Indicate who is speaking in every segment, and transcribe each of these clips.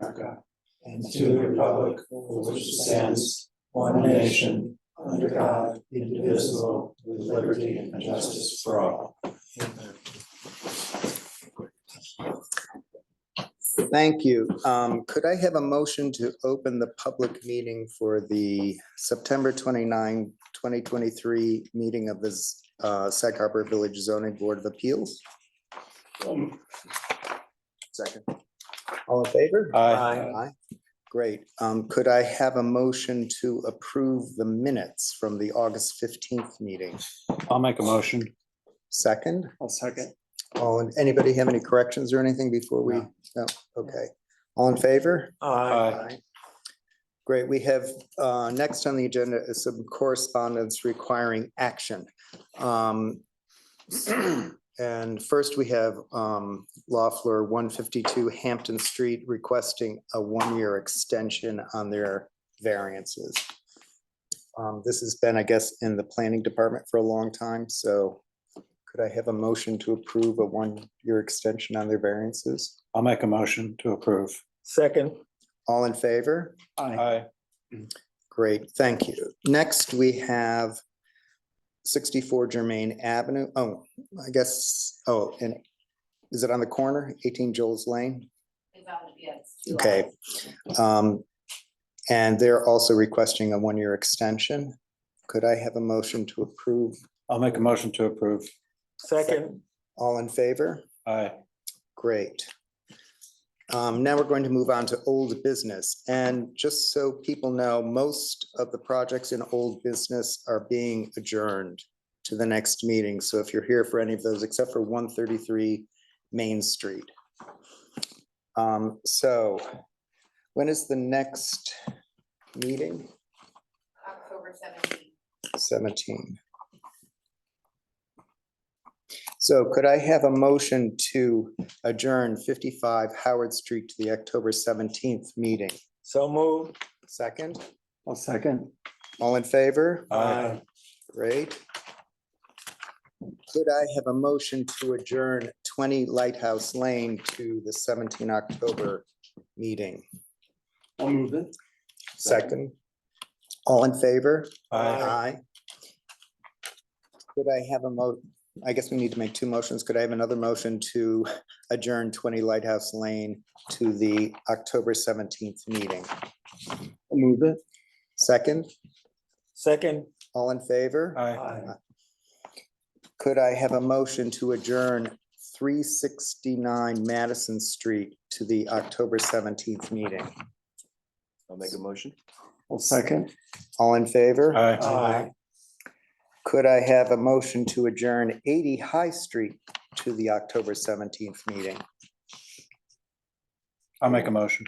Speaker 1: America and to the republic for which it stands, one nation, under God, indivisible, with liberty and justice for all. Amen.
Speaker 2: Thank you. Um, Could I have a motion to open the public meeting for the September 29, 2023 meeting of the Z- uh, Sag Harbor Village Zoning Board of Appeals? Second. All in favor?
Speaker 1: Aye.
Speaker 2: Aye. Great. Um, Could I have a motion to approve the minutes from the August 15th meeting?
Speaker 3: I'll make a motion.
Speaker 2: Second?
Speaker 1: I'll second.
Speaker 2: All, in anybody have any corrections or anything before we, no, okay. All in favor?
Speaker 3: Aye.
Speaker 2: Aye. Great, we have, uh, next on the agenda is some correspondence requiring action. Um, And first, we have um, Loeffler, one fifty-two Hampton Street requesting a one-year extension on their variances. Um, This has been, I guess, in the planning department for a long time, so could I have a motion to approve a one-year extension on their variances?
Speaker 3: I'll make a motion to approve.
Speaker 1: Second.
Speaker 2: All in favor?
Speaker 3: Aye.
Speaker 2: Great, thank you. Next, we have sixty-four Germain Avenue. Oh, I guess, oh, and is it on the corner, eighteen Joel's Lane?
Speaker 4: It's on, yeah, it's two
Speaker 2: Okay.
Speaker 4: hours.
Speaker 2: Um, And they're also requesting a one-year extension. Could I have a motion to approve?
Speaker 3: I'll make a motion to approve.
Speaker 1: Second.
Speaker 2: All in favor?
Speaker 3: Aye.
Speaker 2: Great. Um, Now we're going to move on to old business. And just so people know, most of the projects in old business are being adjourned to the next meeting. So if you're here for any of those, except for 133 Main Street. Um, So when is the next meeting?
Speaker 4: October seventeenth.
Speaker 2: 17. So could I have a motion to adjourn 55 Howard Street to the October 17th meeting?
Speaker 1: So move.
Speaker 2: Second,
Speaker 1: I'll second.
Speaker 2: all in favor?
Speaker 3: Aye.
Speaker 2: Great. Could I have a motion to adjourn 20 Lighthouse Lane to the 17 October meeting?
Speaker 1: I'll move it.
Speaker 2: Second, all in favor?
Speaker 3: Aye.
Speaker 2: Aye. Could I have a mo, I guess we need to make two motions. Could I have another motion to adjourn twenty Lighthouse Lane to the October seventeenth meeting?
Speaker 1: Move it.
Speaker 2: Second,
Speaker 1: Second.
Speaker 2: all in favor?
Speaker 3: Aye.
Speaker 2: Could I have a motion to adjourn three sixty-nine Madison Street to the October seventeenth meeting?
Speaker 5: I'll make a motion.
Speaker 1: I'll second.
Speaker 2: All in favor?
Speaker 3: Aye.
Speaker 1: Aye.
Speaker 2: Could I have a motion to adjourn eighty High Street to the October seventeenth meeting?
Speaker 3: I'll make a motion.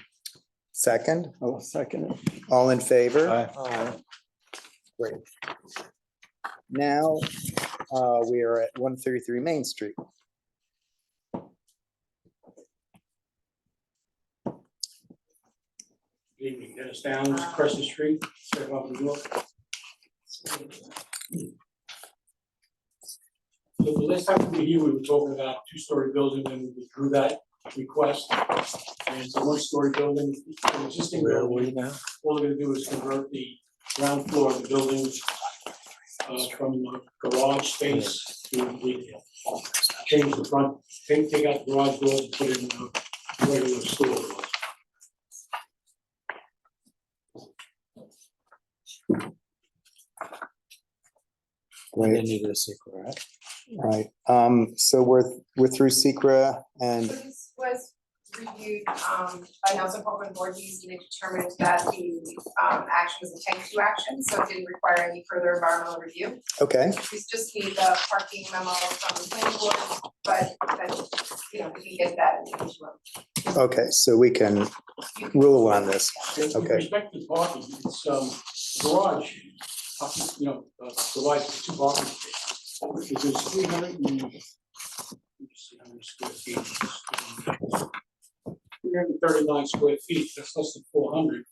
Speaker 2: Second,
Speaker 1: I'll second it.
Speaker 2: all in favor?
Speaker 3: Aye.
Speaker 1: Aye.
Speaker 2: Now, uh, we are at one thirty-three Main Street.
Speaker 6: Good evening, Dennis Downs, Crescent Street, Fairmont, New York. So the last time we were here, we were talking about two-story building and we withdrew that request. And it's a one-story building, an existing building.
Speaker 1: now?
Speaker 6: All they're gonna do is convert the ground floor of the building uh, from a garage space to retail. Change the front, take, take out the garage door and put in a regular store.
Speaker 2: Right,
Speaker 3: need a secret.
Speaker 2: right. Um, so we're, we're through Secra and,
Speaker 4: This was reviewed um by Nelson Copeland Voorhees, and they determined that the um action was a type two action, so it didn't require any further environmental review.
Speaker 2: okay,
Speaker 4: We just need the parking memo from the planning board, but that's, you know, we can get that in the interim.
Speaker 2: okay, so we can rule on this.
Speaker 6: With
Speaker 2: Okay.
Speaker 6: respect to parking, it's um garage, uh, you know, uh, provides two parking spaces. Which is three hundred and. let me see how many square feet. Three hundred and thirty-nine square feet, that's less than four hundred.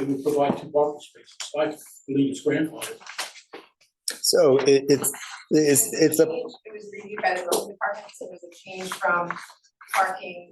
Speaker 6: It would provide two parking spaces, I believe it's grandfathered.
Speaker 2: So it, it's, it's, it's a
Speaker 4: It was reviewed by the building department, so it was a change from parking